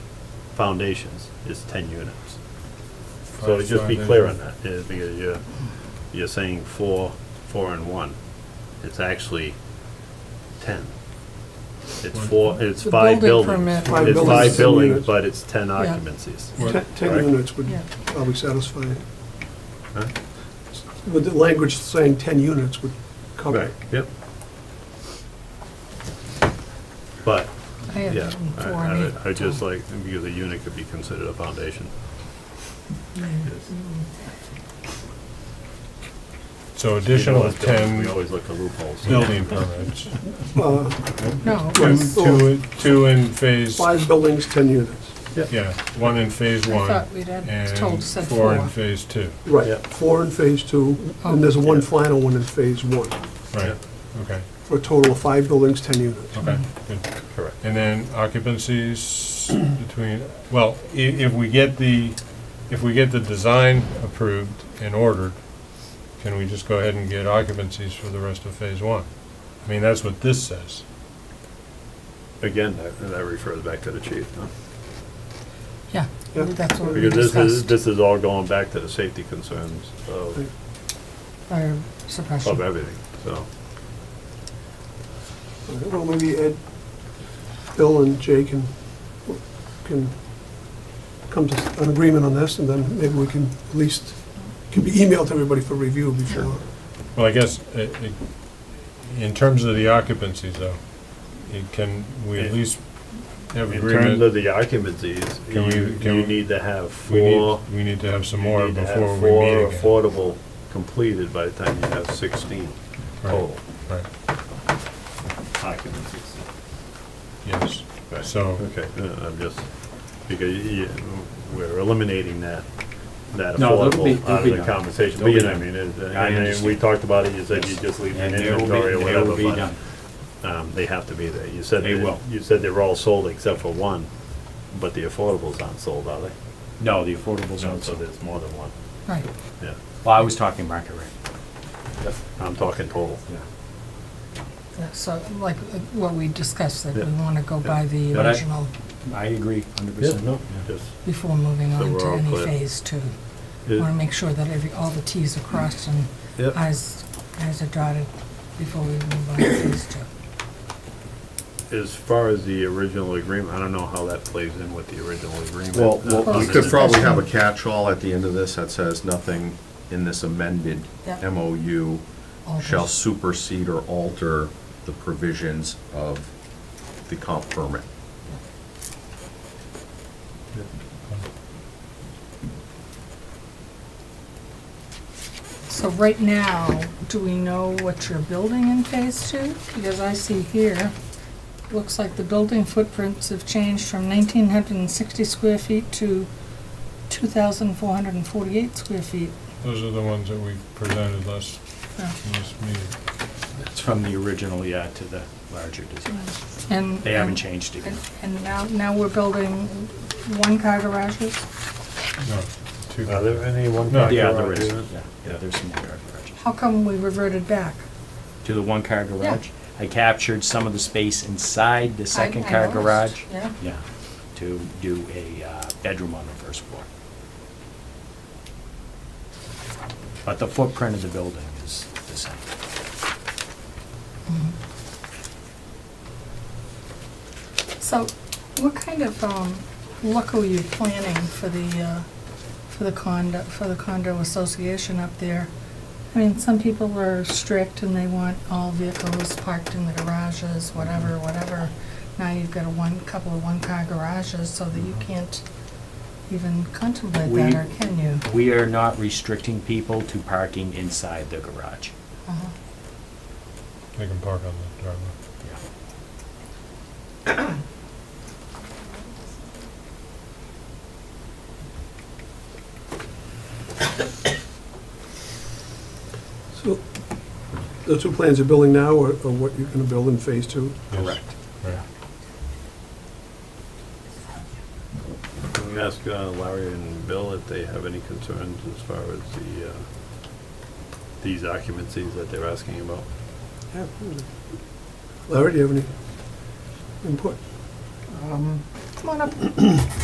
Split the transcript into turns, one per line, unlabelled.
foundations is ten units. So to just be clear on that, is because you're, you're saying four, four and one. It's actually ten. It's four, it's
The
five
building
buildings.
permit.
Five
It's
buildings,
five
ten
buildings,
units.
but it's ten occupancies.
Right.
Ten- Ten
Right.
units would
Yeah.
probably satisfy, it.
Huh?
with the language saying ten units would cover it.
Yep. But,
I had
yeah,
it
I-
in four
I,
and eight.
would- I just like, because a unit could be considered a foundation.
Mm-hmm. So
You know,
additional
as builders,
ten
We always look for loopholes.
building permits.
Uh,
No,
Two,
Yes.
two, two in phase,
Five buildings, ten units.
yeah, one in phase
I
one,
thought we'd had, told
and
said
four in
four.
phase two,
Right,
Yep.
four in phase two, and there's one
Yeah.
final one in phase one,
right, okay,
for a total of five buildings, ten units.
okay, good.
Correct.
And then occupancies between, well, i- if we get the, if we get the design approved and ordered, can we just go ahead and get occupancies for the rest of phase one? I mean, that's what this says.
Again, that, that refers back to the chief, huh?
Yeah,
Yeah.
that's what we
Because this is,
discussed,
this is all going back to the safety concerns of,
fire
of
suppression.
everything, so.
Well, maybe Ed, Bill and Jay can, can come to an agreement on this, and then maybe we can at least, can be emailed to everybody for review before.
Well, I guess, i- i- in terms of the occupancies though, it can, we at least have
In terms
agreement.
of the occupancies, you,
Can we- can
you
we-
need to have
We need,
four,
we need to have some
you
more
need to have
before we meet
four
again.
affordable completed by the time you have sixteen
Right.
total
Right,
occupancies.
yes. So,
Okay, uh, I'm just, because you, we're eliminating that, that
No, there'll be-
affordable out
there'll be
of the
none.
conversation, but
There'll be
you know, I
none.
mean, it-
I
and then we
understand.
talked about it, you said you
Yes.
just leave an
And they will be-
inventory or
they will
whatever,
be done.
but, um, they have to be there. You said,
They
that-
will.
you said they were all sold except for one, but the affordables aren't sold, are they?
No, the affordable zones.
So there's more than one,
Right,
yeah.
Well, I was talking market rate.
I'm talking total.
Yeah, so like uh, what we discussed, that
Yeah.
we want to go by the
But I-
original
I agree, hundred
Yeah,
percent.
no, just,
before moving
So
on
we're
to
all
any
clear.
phase two. Want to
it-
make sure that every, all the Ts are crossed and
yeah,
I's, I's are dotted before we move on to phase two.
as far as the original agreement, I don't know how that plays in with the original agreement.
Well,
uh,
well, we
other
could
than-
probably have a catch-all at the end of this that says nothing in this amended
Yep.
MOU
Alters.
shall supersede or alter the provisions of the comp permit.
So right now, do we know what you're building in phase two? Because I see here, looks like the building footprints have changed from nineteen hundred and sixty square feet to two thousand four hundred and forty-eight square feet.
those are the ones that we presented last,
Yeah.
last meeting.
It's from the original, yeah, to the larger design.
And.
They haven't changed it.
And- And now, now we're building one-car garages?
No, two.
Are there any one?
No,
Yeah,
Yeah,
there is, yeah, yeah, there's some one-car garages.
How come we reverted back?
To the one-car garage, I captured some of the space inside the
I- I
second-car
noticed,
garage.
Yeah.
Yeah, to do a uh, bedroom on the first floor. But the footprint of the building is the same.
So what kind of um, look are you planning for the, uh, for the condo, for the condo association up there? I mean, some people are strict and they want all vehicles parked in the garages, whatever, whatever. Now you've got a one, couple of one-car garages so that you can't even contemplate that,
We-
or can you?
We are not restricting people to parking inside the garage.
Uh-huh.
They can park on the driveway.
Yeah.
So, the two plans you're building now are are what you're gonna build in phase two?
Yes,
Correct.
right.
Can we ask uh, Larry and Bill if they have any concerns as far as the, uh, these occupancies that they're asking about?
Larry, do you have any input?
Come on up.